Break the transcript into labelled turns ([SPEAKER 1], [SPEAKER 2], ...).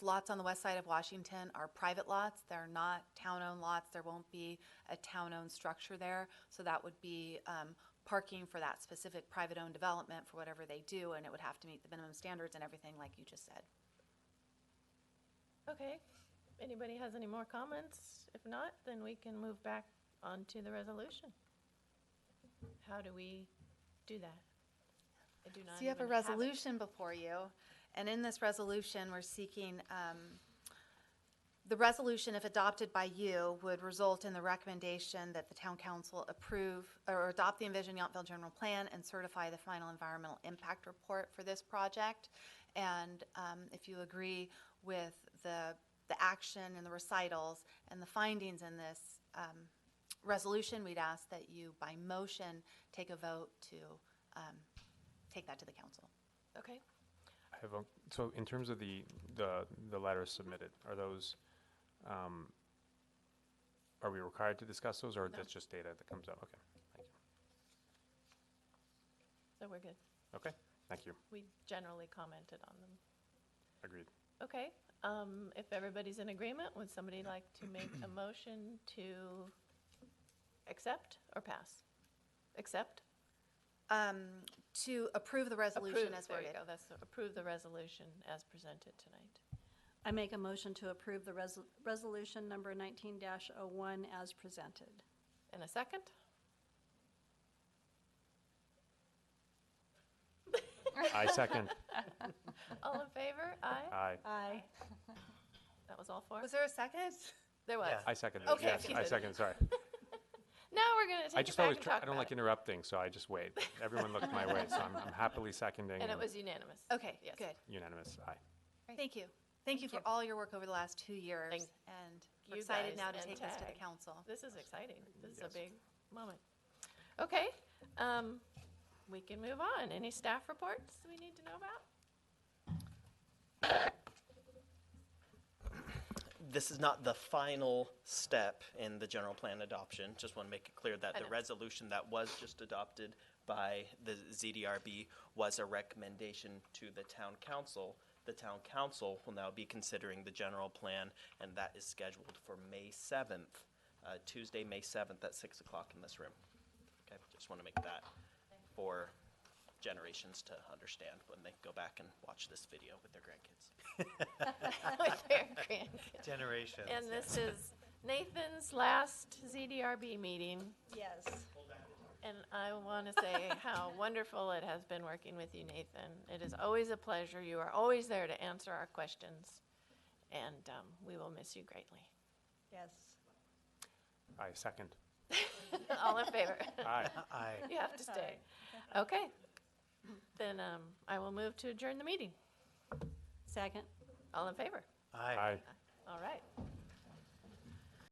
[SPEAKER 1] lots on the west side of Washington are private lots. They're not town-owned lots. There won't be a town-owned structure there. So that would be um, parking for that specific private-owned development for whatever they do, and it would have to meet the minimum standards and everything like you just said.
[SPEAKER 2] Okay, anybody has any more comments? If not, then we can move back onto the resolution. How do we do that? I do not
[SPEAKER 1] So you have a
[SPEAKER 2] even it.
[SPEAKER 1] resolution before you, and in this resolution, we're seeking, um, the resolution, if adopted by you, would result in the recommendation that the town council approve or adopt the envisioned Yountville general plan and certify the final environmental impact report for this project. And, um, if you agree with the, the action and the recitals and the findings in this, um, resolution, we'd ask that you, by motion, take a vote to, um, take that to the council.
[SPEAKER 2] Okay,
[SPEAKER 3] I have a, so in terms of the, the, the letters submitted, are those, um, are we required to discuss those, or
[SPEAKER 1] No.
[SPEAKER 3] that's just data that comes out? Okay, thank you.
[SPEAKER 2] so we're good.
[SPEAKER 3] Okay, thank you,
[SPEAKER 2] We generally commented on them.
[SPEAKER 3] agreed.
[SPEAKER 2] Okay, um, if everybody's in agreement, would somebody like to make a motion to accept or pass? Accept?
[SPEAKER 1] Um, to approve the resolution
[SPEAKER 2] Approve,
[SPEAKER 1] as
[SPEAKER 2] There you
[SPEAKER 1] worded.
[SPEAKER 2] go, that's, approve the resolution as presented tonight.
[SPEAKER 4] I make a motion to approve the resol- resolution number 19-01 as presented.
[SPEAKER 2] And a second?
[SPEAKER 3] I second,
[SPEAKER 2] All in favor? Aye?
[SPEAKER 3] I,
[SPEAKER 4] Aye.
[SPEAKER 2] That was all four?
[SPEAKER 1] Was there a second?
[SPEAKER 2] There was.
[SPEAKER 3] I second,
[SPEAKER 1] Okay,
[SPEAKER 3] yes,
[SPEAKER 2] she
[SPEAKER 3] I
[SPEAKER 2] did.
[SPEAKER 3] second, sorry.
[SPEAKER 2] Now we're gonna
[SPEAKER 3] I
[SPEAKER 2] take it
[SPEAKER 3] just
[SPEAKER 2] back
[SPEAKER 3] always,
[SPEAKER 2] and
[SPEAKER 3] try-
[SPEAKER 2] talk
[SPEAKER 3] I don't
[SPEAKER 2] about
[SPEAKER 3] like
[SPEAKER 2] it.
[SPEAKER 3] interrupting, so I just wait. Everyone looked my way, so I'm I'm happily seconding
[SPEAKER 2] And it
[SPEAKER 3] and
[SPEAKER 2] was unanimous.
[SPEAKER 1] Okay,
[SPEAKER 2] Yes.
[SPEAKER 1] good.
[SPEAKER 3] unanimous, aye.
[SPEAKER 1] Thank you. Thank you for
[SPEAKER 2] you.
[SPEAKER 1] all your work over the last two years.
[SPEAKER 2] Thank
[SPEAKER 1] And we're
[SPEAKER 2] you
[SPEAKER 1] excited
[SPEAKER 2] guys
[SPEAKER 1] now to
[SPEAKER 2] and
[SPEAKER 1] take this to the
[SPEAKER 2] Tag.
[SPEAKER 1] council.
[SPEAKER 2] This is exciting. This is a
[SPEAKER 3] Yes.
[SPEAKER 2] big moment. Okay, um, we can move on. Any staff reports we need to know about?
[SPEAKER 5] this is not the final step in the general plan adoption. Just want to make it clear that
[SPEAKER 2] I
[SPEAKER 5] the
[SPEAKER 2] know.
[SPEAKER 5] resolution that was just adopted by the ZDRB was a recommendation to the town council. The town council will now be considering the general plan, and that is scheduled for May seventh, uh, Tuesday, May seventh at six o'clock in this room. Okay, just want to make that for generations to understand when they go back and watch this video with their grandkids.
[SPEAKER 2] With their grandkids.
[SPEAKER 6] Generations.
[SPEAKER 2] And this is Nathan's last ZDRB meeting,
[SPEAKER 4] Yes.
[SPEAKER 2] and I want to say how wonderful it has been working with you, Nathan. It is always a pleasure. You are always there to answer our questions, and, um, we will miss you greatly.
[SPEAKER 4] Yes.
[SPEAKER 3] I second,
[SPEAKER 2] All in favor?
[SPEAKER 3] aye.
[SPEAKER 6] I.
[SPEAKER 2] You have to stay. Okay. Then um, I will move to adjourn the meeting.
[SPEAKER 4] Second?
[SPEAKER 2] All in favor?
[SPEAKER 6] I.
[SPEAKER 3] Aye.
[SPEAKER 2] All right.